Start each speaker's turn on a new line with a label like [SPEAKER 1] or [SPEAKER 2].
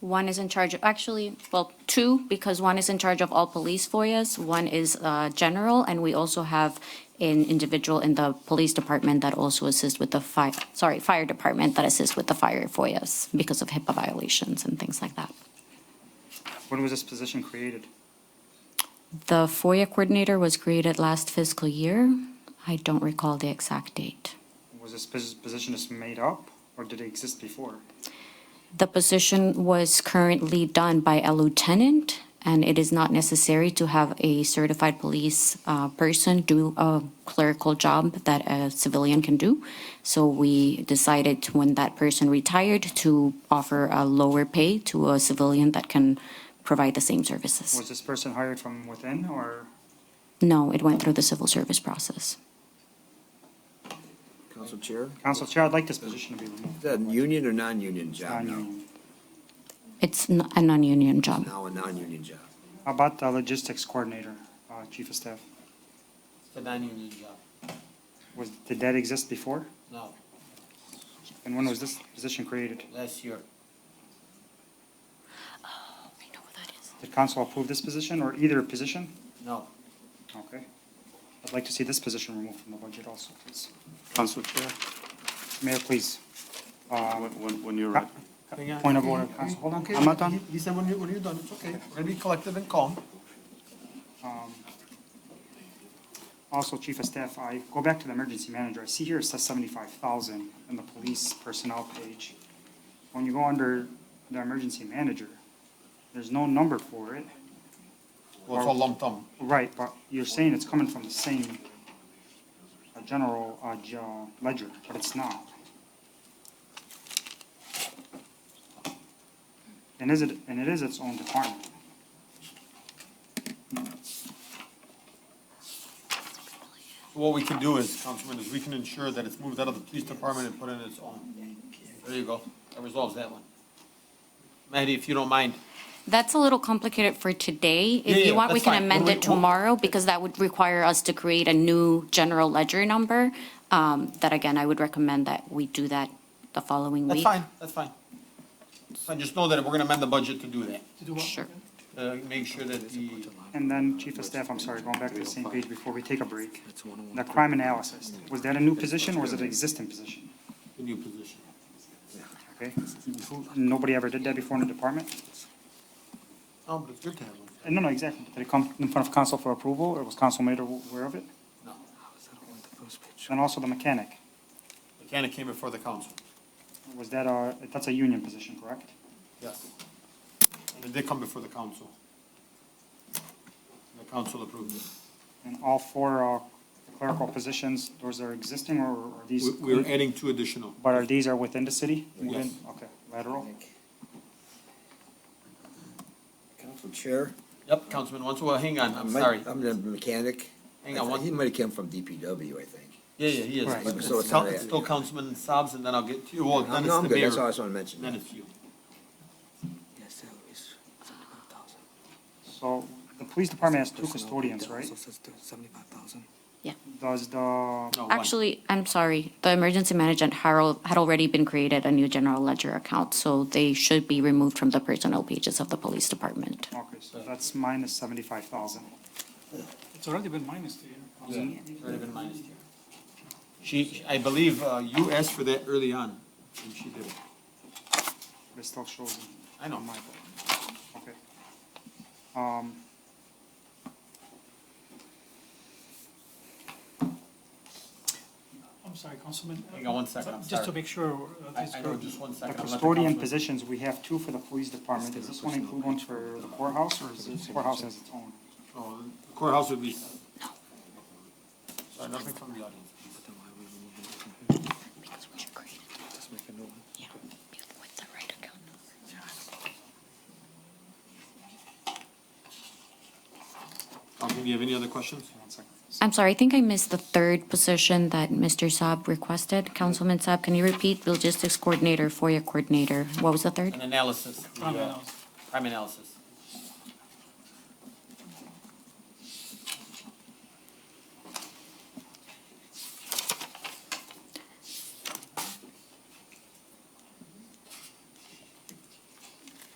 [SPEAKER 1] One is in charge of, actually, well, two, because one is in charge of all police FOIAs, one is uh, general, and we also have an individual in the police department that also assists with the fire, sorry, fire department that assists with the fire FOIAs because of HIPAA violations and things like that.
[SPEAKER 2] When was this position created?
[SPEAKER 1] The FOIA coordinator was created last fiscal year. I don't recall the exact date.
[SPEAKER 2] Was this pos- position just made up, or did it exist before?
[SPEAKER 1] The position was currently done by a lieutenant, and it is not necessary to have a certified police uh, person do a clerical job that a civilian can do. So we decided when that person retired to offer a lower pay to a civilian that can provide the same services.
[SPEAKER 2] Was this person hired from within, or
[SPEAKER 1] No, it went through the civil service process.
[SPEAKER 3] Council Chair?
[SPEAKER 2] council chair? I'd like this position to be removed.
[SPEAKER 3] Is that union or non-union job now?
[SPEAKER 2] Non-union.
[SPEAKER 1] It's n- a non-union job.
[SPEAKER 3] Now a non-union job.
[SPEAKER 2] How about the logistics coordinator, uh, chief of staff?
[SPEAKER 4] It's a non-union job,
[SPEAKER 2] Was did that exist before?
[SPEAKER 4] no,
[SPEAKER 2] And when was this position created?
[SPEAKER 4] last year.
[SPEAKER 1] I know what that is.
[SPEAKER 2] Did council approve this position or either position?
[SPEAKER 4] No,
[SPEAKER 2] Okay. I'd like to see this position removed from the budget also, please.
[SPEAKER 5] Council Chair,
[SPEAKER 2] Mayor, please. uh,
[SPEAKER 5] when, when- when you're ready.
[SPEAKER 2] Point of order, council. Hold on.
[SPEAKER 5] I'm not done.
[SPEAKER 6] He said when you, when you're done, it's okay. We're gonna be collective and calm.
[SPEAKER 2] Also, Chief of Staff, I go back to the emergency manager. I see here it says seventy-five thousand in the police personnel page. When you go under the emergency manager, there's no number for it.
[SPEAKER 6] Well, it's all lump sum.
[SPEAKER 2] Right, but you're saying it's coming from the same uh, general uh, ge- uh, ledger, but it's not. And is it, and it is its own department.
[SPEAKER 6] What we can do is, Councilman, is we can ensure that it's moved out of the police department and put in its own.
[SPEAKER 4] there you go, that resolves that one. Maddie, if you don't mind,
[SPEAKER 1] That's a little complicated for today.
[SPEAKER 4] Yeah,
[SPEAKER 1] If you
[SPEAKER 4] yeah,
[SPEAKER 1] want, we
[SPEAKER 4] that's
[SPEAKER 1] can
[SPEAKER 4] fine.
[SPEAKER 1] amend
[SPEAKER 4] When we-
[SPEAKER 1] it tomorrow because that would require us to create a new general ledger number. Um, That again, I would recommend that we do that the following
[SPEAKER 4] that's
[SPEAKER 1] week.
[SPEAKER 4] fine, that's fine. So just know that we're gonna amend the budget to do that,
[SPEAKER 1] Sure.
[SPEAKER 4] uh, make sure that the,
[SPEAKER 2] And then, Chief of Staff, I'm sorry, going back to the same page before we take a break. The crime analysis, was that a new position or was it an existing position?
[SPEAKER 4] the new position.
[SPEAKER 2] Okay, who- nobody ever did that before in the department?
[SPEAKER 4] No, but it's good to have one.
[SPEAKER 2] Uh, No, no, exactly. Did it come in front of council for approval or was council made aware of it?
[SPEAKER 4] No,
[SPEAKER 2] And also the mechanic,
[SPEAKER 4] mechanic came before the council,
[SPEAKER 2] was that a, that's a union position, correct?
[SPEAKER 4] yes. And it did come before the council. The council approved it.
[SPEAKER 2] And all four uh, clerical positions, those are existing or are these?
[SPEAKER 4] We- We're adding two additional.
[SPEAKER 2] But are these are within the city?
[SPEAKER 4] Yes.
[SPEAKER 2] Within- Okay, lateral.
[SPEAKER 3] Council Chair?
[SPEAKER 4] Yep, Councilman Wanso, hang on, I'm
[SPEAKER 3] might-
[SPEAKER 4] sorry.
[SPEAKER 3] I'm the mechanic.
[SPEAKER 4] Hang on
[SPEAKER 3] I-
[SPEAKER 4] one-
[SPEAKER 3] uh, He might have come from DPW, I think.
[SPEAKER 4] Yeah, yeah, he
[SPEAKER 2] Right.
[SPEAKER 4] is. It's
[SPEAKER 3] So it's
[SPEAKER 4] still-
[SPEAKER 3] not
[SPEAKER 4] it's
[SPEAKER 3] that.
[SPEAKER 4] still Councilman Saabs, and then I'll get to you. Well,
[SPEAKER 3] No,
[SPEAKER 4] Oh, then
[SPEAKER 3] no, I'm
[SPEAKER 4] it's the
[SPEAKER 3] good, that's all I
[SPEAKER 4] mayor.
[SPEAKER 3] just want to mention.
[SPEAKER 4] Then it's you.
[SPEAKER 2] So the police department has two custodians, right?
[SPEAKER 1] Yeah.
[SPEAKER 2] Does the,
[SPEAKER 4] No, one.
[SPEAKER 1] Actually, I'm sorry, the emergency management Harold had already been created a new general ledger account, so they should be removed from the personnel pages of the police department.
[SPEAKER 2] okay, so that's minus seventy-five thousand.
[SPEAKER 7] It's already been minus two, yeah.
[SPEAKER 4] It's already been minus here. She, I believe uh, you asked for that early on, and she did it.
[SPEAKER 2] But it still shows,
[SPEAKER 4] I know,
[SPEAKER 2] Mike.
[SPEAKER 4] Mike.
[SPEAKER 2] okay. Um,
[SPEAKER 7] I'm sorry, Councilman.
[SPEAKER 4] Hang on one second, I'm
[SPEAKER 7] Just to
[SPEAKER 4] sorry.
[SPEAKER 7] make sure. uh,
[SPEAKER 4] I,
[SPEAKER 7] it's
[SPEAKER 4] I know,
[SPEAKER 7] correct.
[SPEAKER 4] just one
[SPEAKER 2] The
[SPEAKER 4] second. I'll let the
[SPEAKER 2] custodian
[SPEAKER 4] councilman-
[SPEAKER 2] positions, we have two for the police department. Does this one include one for the courthouse or is the courthouse has its own?
[SPEAKER 4] Oh, the Courthouse would be. Sorry, nothing from the audience.
[SPEAKER 1] Because we should create it. Yeah, with the right account number.
[SPEAKER 4] Councilman, do you have any other questions?
[SPEAKER 2] One second.
[SPEAKER 1] I'm sorry, I think I missed the third position that Mr. Saab requested. Councilman Saab, can you repeat logistics coordinator, FOIA coordinator? What was the third?
[SPEAKER 4] An analysis. the, uh,
[SPEAKER 7] Crime analysis.
[SPEAKER 4] Crime analysis.